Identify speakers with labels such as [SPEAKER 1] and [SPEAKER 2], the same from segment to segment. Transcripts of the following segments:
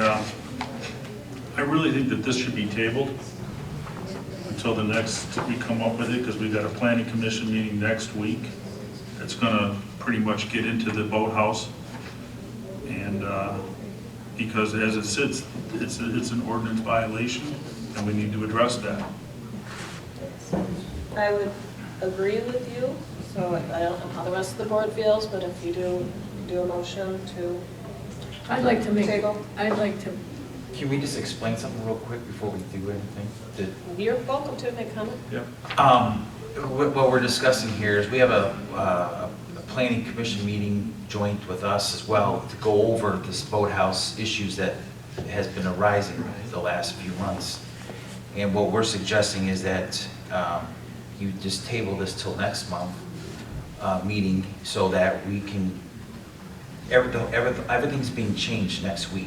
[SPEAKER 1] uh, I really think that this should be tabled until the next, we come up with it, because we've got a planning commission meeting next week. It's gonna pretty much get into the boathouse. And, uh, because as it sits, it's, it's an ordinance violation, and we need to address that.
[SPEAKER 2] I would agree with you, so I don't know how the rest of the board feels, but if you do, do a motion to
[SPEAKER 3] I'd like to make,
[SPEAKER 2] Table.
[SPEAKER 3] I'd like to,
[SPEAKER 4] Can we just explain something real quick before we do anything? Did-
[SPEAKER 2] You're welcome to make comment.
[SPEAKER 1] Yep.
[SPEAKER 4] Um, wh- What we're discussing here is we have a, uh, a planning commission meeting joint with us as well to go over this boathouse issues that has been arising the last few months. And what we're suggesting is that um, you just table this till next month, uh, meeting, so that we can, everything, everything- everything's being changed next week,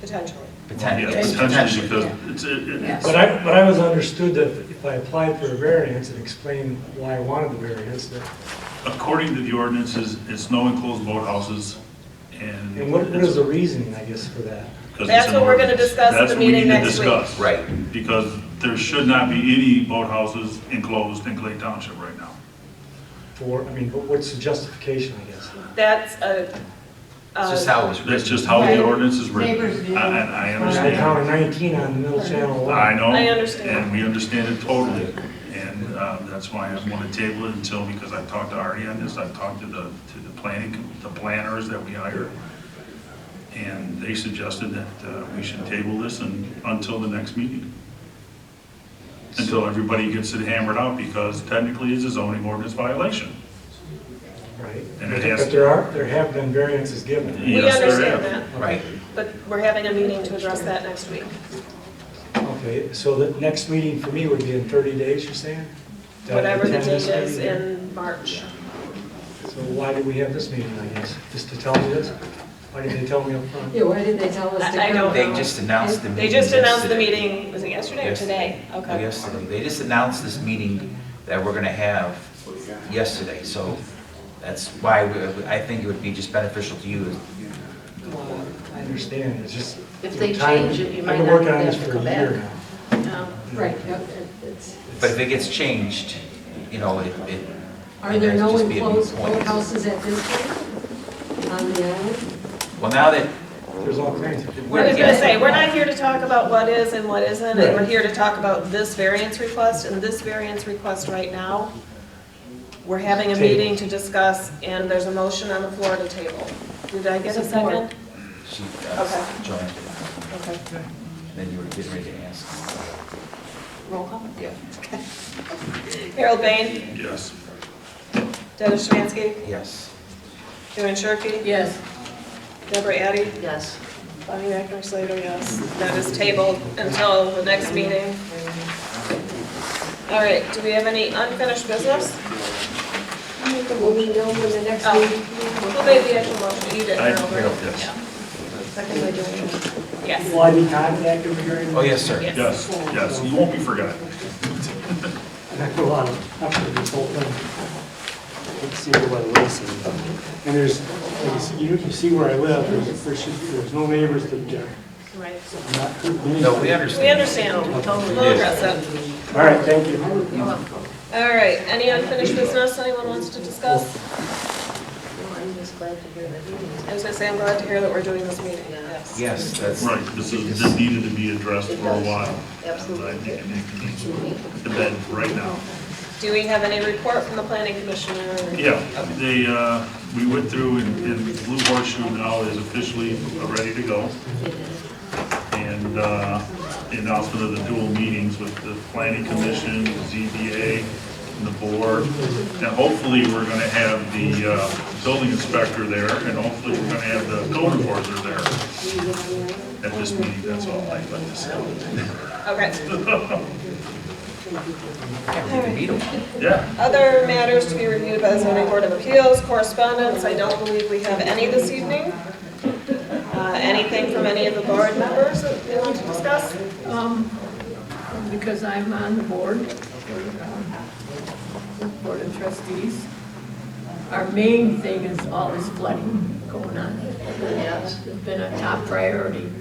[SPEAKER 2] potentially.
[SPEAKER 4] potentially.
[SPEAKER 1] Yeah, potentially, because
[SPEAKER 3] yeah.
[SPEAKER 1] it's, it- it-
[SPEAKER 3] Yes.
[SPEAKER 5] But I, but I was understood that if I applied for a variance and explained why I wanted the variance, that,
[SPEAKER 1] according to the ordinances, it's no enclosed boathouses, and.
[SPEAKER 5] and what what is the reasoning, I guess, for that?
[SPEAKER 1] 'Cause it's
[SPEAKER 2] That's
[SPEAKER 1] an
[SPEAKER 2] what we're gonna
[SPEAKER 1] ordinance.
[SPEAKER 2] discuss at
[SPEAKER 1] That's
[SPEAKER 2] the
[SPEAKER 1] what we
[SPEAKER 2] meeting
[SPEAKER 1] need to
[SPEAKER 2] next week.
[SPEAKER 1] discuss.
[SPEAKER 4] Right.
[SPEAKER 1] Because there should not be any boathouses enclosed in Clay Township right now.
[SPEAKER 5] For, I mean, what- what's the justification, I guess?
[SPEAKER 2] That's a,
[SPEAKER 4] It's just how
[SPEAKER 2] a
[SPEAKER 4] it was written.
[SPEAKER 1] That's just how the
[SPEAKER 3] Right.
[SPEAKER 1] ordinance is written.
[SPEAKER 6] Neighbors view.
[SPEAKER 1] I- I, I
[SPEAKER 5] I
[SPEAKER 1] understand.
[SPEAKER 5] counted 19 on the middle channel alone.
[SPEAKER 1] I know.
[SPEAKER 2] I understand.
[SPEAKER 1] And we understand it totally. And uh, that's why I want to table it until, because I've talked to Artie on this, I've talked to the, to the planning, the planners that we hire. And they suggested that uh, we should table this and, until the next meeting. Until everybody gets it hammered out, because technically it's a zoning ordinance violation.
[SPEAKER 5] Right?
[SPEAKER 1] And it has-
[SPEAKER 5] But there are, there have been variances given.
[SPEAKER 2] we
[SPEAKER 1] Yes, there
[SPEAKER 2] understand
[SPEAKER 1] is.
[SPEAKER 2] that,
[SPEAKER 4] Right.
[SPEAKER 2] but we're having a meeting to address that next week.
[SPEAKER 5] Okay, so the next meeting for me would be in 30 days, you're saying? To
[SPEAKER 2] Whatever the
[SPEAKER 5] attend this
[SPEAKER 2] date is
[SPEAKER 5] meeting?
[SPEAKER 2] in March.
[SPEAKER 5] So why do we have this meeting, I guess? Just to tell me this? Why didn't they tell me up front?
[SPEAKER 6] Yeah, why didn't they tell us to come?
[SPEAKER 2] I- I don't-
[SPEAKER 4] They just announced the meeting.
[SPEAKER 2] They just announced the
[SPEAKER 4] yesterday.
[SPEAKER 2] meeting, was it yesterday or
[SPEAKER 4] Yes.
[SPEAKER 2] today? Okay.
[SPEAKER 4] Yesterday. They just announced this meeting that we're going to have yesterday, so that's why we- I think it would be just beneficial to you.
[SPEAKER 5] I understand, it's just.
[SPEAKER 6] If they
[SPEAKER 5] time-
[SPEAKER 6] change it, you might
[SPEAKER 5] I've been
[SPEAKER 6] not
[SPEAKER 5] working on
[SPEAKER 6] have
[SPEAKER 5] this
[SPEAKER 6] to
[SPEAKER 5] for a
[SPEAKER 6] come
[SPEAKER 5] year
[SPEAKER 6] back.
[SPEAKER 5] now.
[SPEAKER 2] Um,
[SPEAKER 6] Right, no, it- it's,
[SPEAKER 4] But if it gets changed, you know, it. it-
[SPEAKER 6] are there no
[SPEAKER 4] it'd just be a moot
[SPEAKER 6] enclosed
[SPEAKER 4] point.
[SPEAKER 6] boathouses at this point on the island?
[SPEAKER 4] Well, now that.
[SPEAKER 5] There's all kinds of.
[SPEAKER 2] I was gonna say, we're not here to talk about what is and what isn't, and we're here to talk about this variance request, and this variance request right now, we're having a meeting to discuss, and there's a motion on the floor to table. Did I get a second?
[SPEAKER 4] She, uh,
[SPEAKER 2] Okay.
[SPEAKER 4] joined,
[SPEAKER 2] Okay,
[SPEAKER 4] then you were getting ready to ask.
[SPEAKER 2] roll call.
[SPEAKER 4] Yeah.
[SPEAKER 2] Harold Bain,
[SPEAKER 1] Yes.
[SPEAKER 2] Dennis Schimanski,
[SPEAKER 4] Yes.
[SPEAKER 2] Joanne Shirkey,
[SPEAKER 3] yes,
[SPEAKER 2] Deborah Addy,
[SPEAKER 6] Yes.
[SPEAKER 2] Bonnie Akner Slater, yes. That is tabled until the next meeting. All right, do we have any unfinished business?
[SPEAKER 6] Will we know when the next
[SPEAKER 2] Oh.
[SPEAKER 6] meeting?
[SPEAKER 2] Who made the actual motion? You did,
[SPEAKER 1] I-
[SPEAKER 2] Harold, right?
[SPEAKER 4] Harold, yes.
[SPEAKER 2] Yeah. Second by Joanne. Yes.
[SPEAKER 5] Will I be contacted regarding?
[SPEAKER 4] Oh, yes, sir.
[SPEAKER 2] Yes.
[SPEAKER 1] Yes, yes, you won't be forgotten.
[SPEAKER 5] And I put a lot of effort into this whole thing. You can see everybody listening. And there's, like you see- you can see where I live, there's, there's just- there's no neighbors to object.
[SPEAKER 2] Right.
[SPEAKER 5] I'm not hurting anybody.
[SPEAKER 4] No, we
[SPEAKER 2] We
[SPEAKER 4] understand.
[SPEAKER 2] understand. We'll address it.
[SPEAKER 5] All right, thank you.
[SPEAKER 2] All right, any unfinished business anyone wants to discuss?
[SPEAKER 6] No, I'm just glad to hear that.
[SPEAKER 2] I was gonna say, I'm glad to hear that we're doing this meeting, yes.
[SPEAKER 4] Yes, that's.
[SPEAKER 1] Right, this is, this needed to be addressed for a while. Absolutely. And I think it needs to be then, right now.
[SPEAKER 2] Do we have any report from the planning commissioner?
[SPEAKER 1] Yeah, they, uh, we went through and and Blue Horseshoe now is officially ready to go. And uh, the announcement of the dual meetings with the planning commission, the ZBA, and the board. And hopefully, we're going to have the uh, building inspector there, and hopefully, we're going to have the code enforcer there at this meeting, that's all I'd like to say.
[SPEAKER 2] Okay,
[SPEAKER 4] We can beat 'em.
[SPEAKER 1] Yeah,
[SPEAKER 2] other matters to be reviewed by the zoning board of appeals, correspondence, I don't believe we have any this evening. Uh, anything from any of the board members that they want to discuss?
[SPEAKER 3] um, because I'm on the board, um, Board of Trustees. Our main thing is all this flooding going on. It's been a top priority.